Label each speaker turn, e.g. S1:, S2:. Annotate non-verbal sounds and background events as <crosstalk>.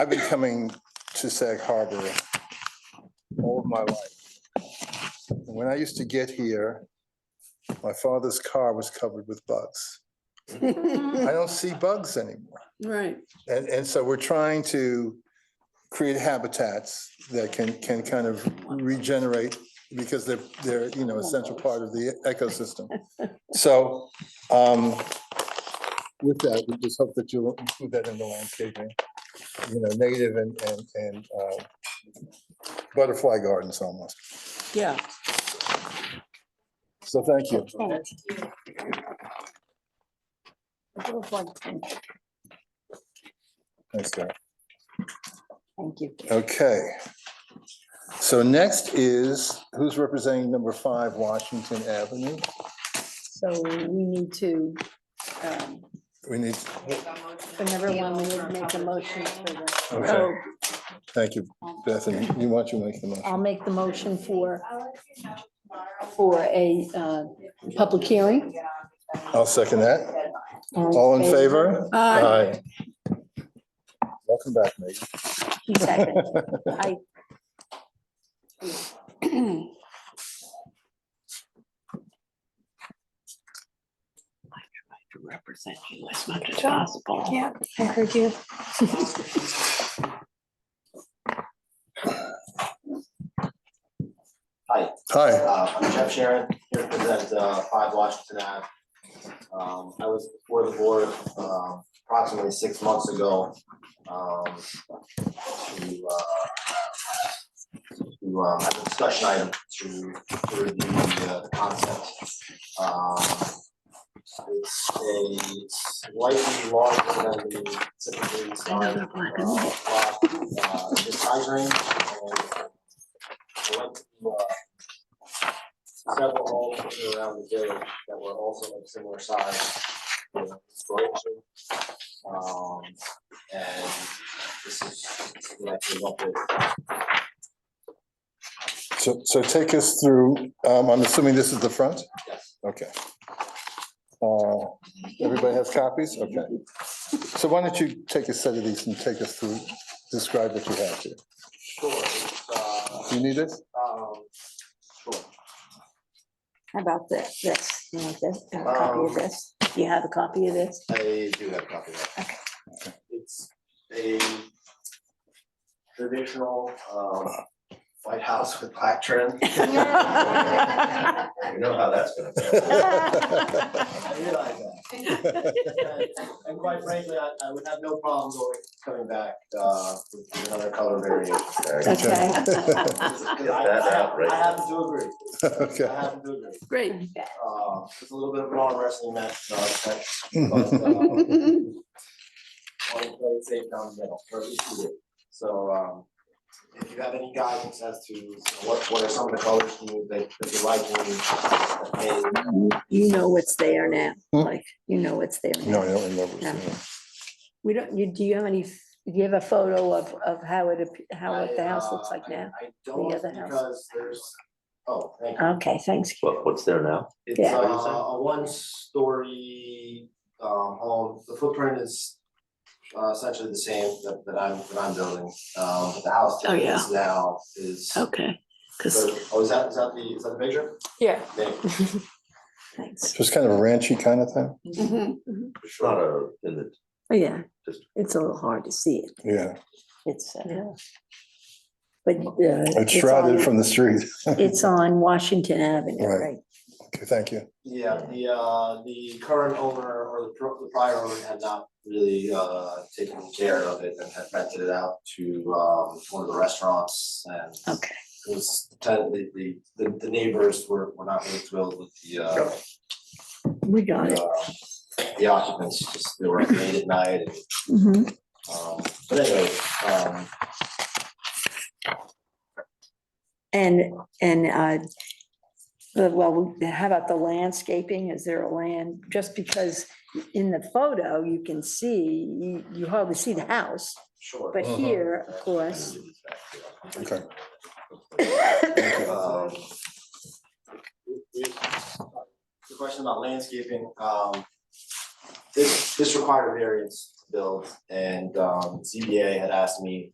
S1: I've been coming to Sag Harbor all of my life. And When I used to get here, my father's car was covered with bugs. I don't see bugs anymore.
S2: <laughs> Right,
S1: And, and so we're trying to create habitats that can, can kind of regenerate because they're, they're, you know, essential part of the ecosystem. So, um, with that, we just hope that you'll include that in the landscaping, you know, native and, and, and, uh, butterfly gardens almost.
S2: yeah.
S1: So thank you. Thanks, Gary.
S2: Thank you.
S1: Okay. So next is, who's representing number five Washington Avenue?
S2: So we need to, um,
S1: We need,
S2: whenever one, we need to make a motion for the,
S1: okay,
S2: oh,
S1: thank you, Bethany. You want to make the motion?
S2: I'll make the motion for, for a, uh, public hearing.
S1: I'll second that. All in favor?
S2: uh, Aye.
S1: Aye. Welcome back, Megan.
S2: Two
S1: <laughs>
S2: seconds. I.
S3: to represent you as much as possible.
S4: Yeah, I heard you.
S5: Hi,
S1: Hi.
S5: uh, I'm Jeff Sharon, here to present uh, Five Washington Ave. Um, I was before the board uh, approximately six months ago. um, To, uh, to um, have a discussion item to to review the uh, the concept. Um, It's a slightly larger than the typically
S3: Another
S5: signed.
S3: black
S5: uh,
S3: and white.
S5: lot, uh, This size range. and I went to uh, several homes in and around the village that were also of similar size. you know, installation. Um, and this is what I came up with.
S1: So, so take us through, um, I'm assuming this is the front?
S5: Yes.
S1: Okay. Uh, Everybody has copies? Okay. So why don't you take a set of these and take us through, describe what you have here.
S5: Sure, it's, uh,
S1: Do you need
S2: <laughs>
S1: it?
S5: um, sure.
S2: How about this, this, you want this, a copy of
S5: Um,
S2: this? Do you have a copy of this?
S5: I do have a copy of that. It's a traditional, um, white house with black trim. You know how that's gonna go. I realize that. <laughs> And- And quite frankly, I, I would have no problem going, coming back, uh, with another color variation.
S2: Okay,
S5: I I happen to agree,
S1: <laughs>
S5: I
S1: Okay.
S5: happen to agree.
S2: <laughs> great.
S5: Uh, it's a little bit of an arm wrestling match, no, it's not- but,
S1: Mhm.
S5: uh, <laughs> want to play it safe down the middle, or at least you do. So, um, if you have any guidance as to what, what are some of the colors you, that, that you like, and that may-
S2: You know what's there now,
S1: Hmm.
S2: like, you know what's there. now.
S1: No, I don't remember. seeing it.
S2: We don't, you, do you have any, f- do you have a photo of, of how it, ap- how
S5: I,
S2: what the house
S5: uh,
S2: looks like
S5: I-
S2: now?
S5: I don't,
S2: other house.
S5: because there's, oh, thank you.
S2: Okay, thanks.
S6: What, what's there now?
S5: It's
S2: Yeah.
S5: uh, a one-story, um, home, the footprint is uh, essentially the same that, that I'm, that I'm building. Um, but the house
S3: Oh,
S5: that
S3: yeah.
S5: is now is, oh,
S3: Okay, because,
S5: is that, is that the, is that the picture?
S4: Yeah.
S5: Thank you,
S2: Thanks.
S1: Just kind of ranchy kind of thing?
S2: Mhm.
S5: for
S6: It's
S5: sure.
S6: not a, in the,
S2: Oh, Yeah,
S6: Just-
S2: it's a little hard to see it.
S1: Yeah,
S2: It's, uh, but. uh,
S1: it's
S2: on-
S1: shrouded from the street. <laughs>
S2: It's on Washington Avenue,
S1: Right.
S2: right?
S1: Okay, thank you.
S5: Yeah, the uh, the current owner or the pro- the prior owner had not really uh taken care of it and had rented it out to um one of the restaurants and.
S2: Okay.
S5: It was, ten- the the the the neighbors were were not really thrilled with the uh.
S2: We got it.
S5: The uh, the occupants, just they were late at night and
S2: Mhm.
S5: um, but anyway, um,
S2: And, and, uh, the- well, how about the landscaping? Is there a land? Just because in the photo, you can see, you- you hardly see the house,
S5: sure.
S2: but here, of course,
S1: Okay.
S2: <laughs>
S5: Um, we- we- The question about landscaping, um, this, this required a variance built and um, ZBA had asked me